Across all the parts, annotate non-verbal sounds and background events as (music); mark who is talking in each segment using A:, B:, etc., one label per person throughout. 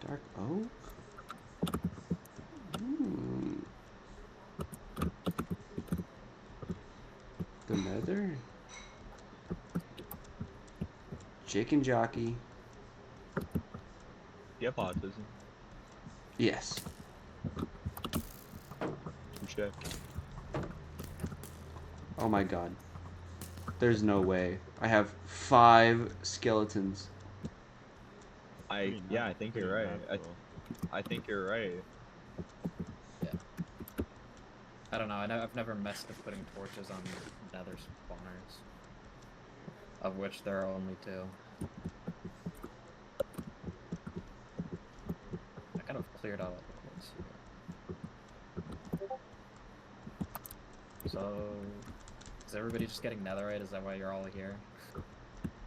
A: Dark oak? Hmm. The nether? Chicken jockey.
B: You have autism.
A: Yes.
B: Touche.
A: Oh my god. There's no way. I have five skeletons.
B: I
C: Pretty
B: yeah,
C: nat-
B: I think
C: pretty
B: you're right. I,
C: natural.
B: I think you're right.
D: I don't know. I know I've never messed with putting torches on nether spawners, of which there are only two. I kind of cleared out all the ones here. So, is everybody just getting netherite? Is that why you're all here?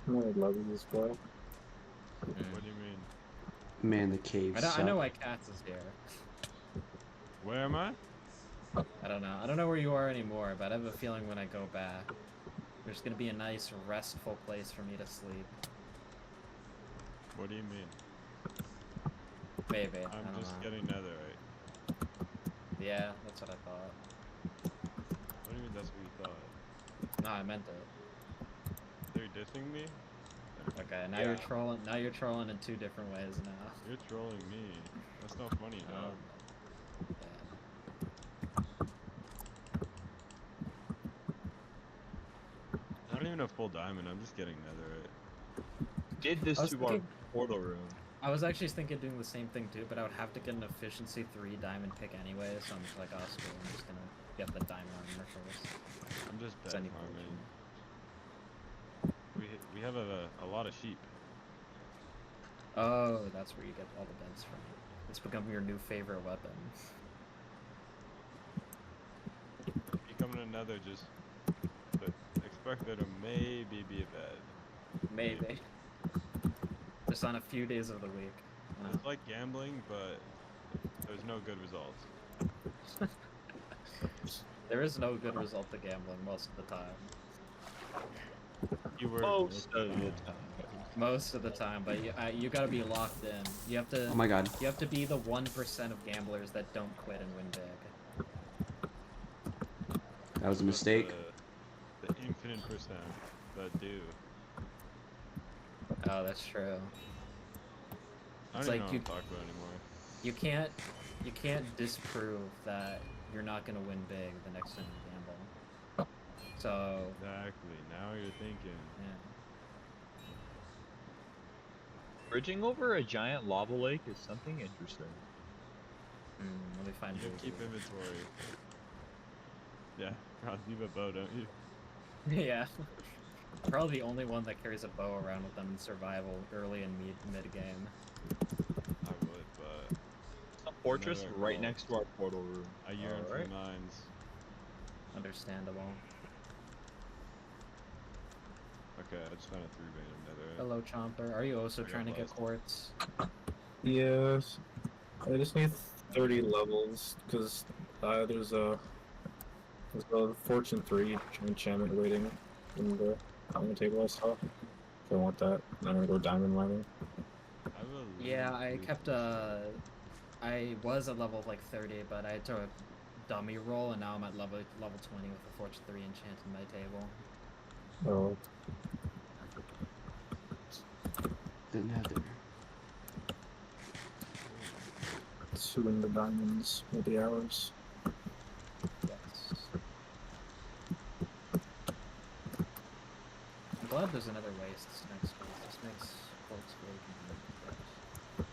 E: I'm only loving this boy.
C: What do you mean?
A: Man, the cave
D: I, know, I
A: suck.
D: know why Katz is here.
C: Where am I?
D: I don't know. I don't know where you are anymore, but I have a feeling when I go back, there's gonna be a nice, restful place for me to sleep.
C: What do you mean?
D: Maybe. I
C: I'm
D: don't
C: just
D: know.
C: getting netherite.
D: Yeah, that's what I thought.
C: What do you mean that's what you thought?
D: No, I meant it.
C: They're dissing me?
D: Okay, now you're
C: Yeah.
D: trolling. Now you're trolling in two different ways now.
C: You're trolling me. That's not funny,
D: Um,
C: dog.
D: yeah.
C: I don't even have full diamond. I'm just getting netherite.
B: Did this
D: I was
B: to our
D: thinking-
B: portal room.
D: I was actually thinking of doing the same thing too, but I would have to get an efficiency three diamond pick anyway. So I'm just like, oh, screw it, I'm just gonna get the diamond armor first.
C: I'm just
D: It's
C: bad
D: any
C: farming.
D: fortune.
C: We ha- we have a, a lot of sheep.
D: Oh, that's where you get all the beds from. It's become your new favorite weapon.
C: If you come to another, just but expect there to maybe be a bed.
D: Maybe. Just on a few days of the week. Uh, you know.
C: It's like gambling, but there's no good results.
D: There is no good result to gambling most of the time.
C: You were
A: Oh,
B: Most of the time.
D: Most of the time, but you, uh, you gotta be locked in. You have to.
A: Oh my god.
D: You have to be the one percent of gamblers that don't quit and win big.
A: That was a mistake.
D: Uh,
C: The, the infinite percent that do.
D: Oh, that's true.
C: I
D: It's
C: don't even
D: like
C: know what
D: you-
C: I'm talking about anymore.
D: You can't. You can't disprove that you're not gonna win big the next time you gamble. So.
C: Exactly. Now you're thinking.
D: Yeah.
B: Bridging over a giant lava lake is something interesting.
D: Mm, let me find.
C: You
D: Google.
C: keep inventory. Yeah, (laughs) Ross, you have a bow, don't you?
D: (laughs) yeah. Probably the only one that carries a bow around with them in survival early and mid mid game.
C: I would, but
B: A fortress
C: Another
B: right
C: goal.
B: next to our portal room.
C: I yearn for
B: Alright.
C: mines.
D: Understandable.
C: Okay, I just found a three vein of nether.
D: Hello, Chomper. Are you also
C: I got
D: trying to get
C: lost.
D: quartz?
E: Yes. I just need 30 levels because uh, there's a there's a Fortune 3 enchantment waiting in the diamond table I saw. If I want that, and I'm gonna go diamond mining.
C: I will
D: Yeah,
C: lose
D: I
C: these
D: kept uh I was at level like 30, but I took a dummy roll and now I'm at level level 20 with a fortune 3 enchant in my table.
E: So
A: The nether.
E: suing the diamonds with the hours.
D: Yes. I'm glad there's another waste next week. This makes quartz way convenient for us.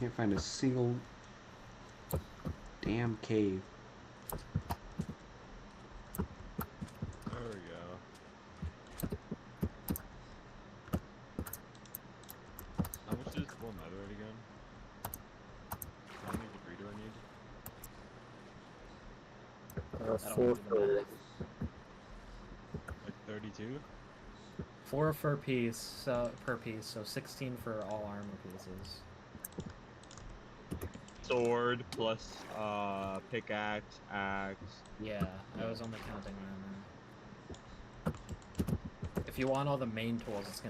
A: Can't find a single damn cave.
C: There we go. How much is full netherite again? How many debris do I need?
E: Uh,
D: I don't
E: four
D: wanna do the
E: for
D: math.
C: Like 32?
D: Four for piece, so per piece, so 16 for all armor pieces.
B: Sword plus uh pickaxe, axe.
D: Yeah, I was only counting armor. If if you want all the main tools, it's gonna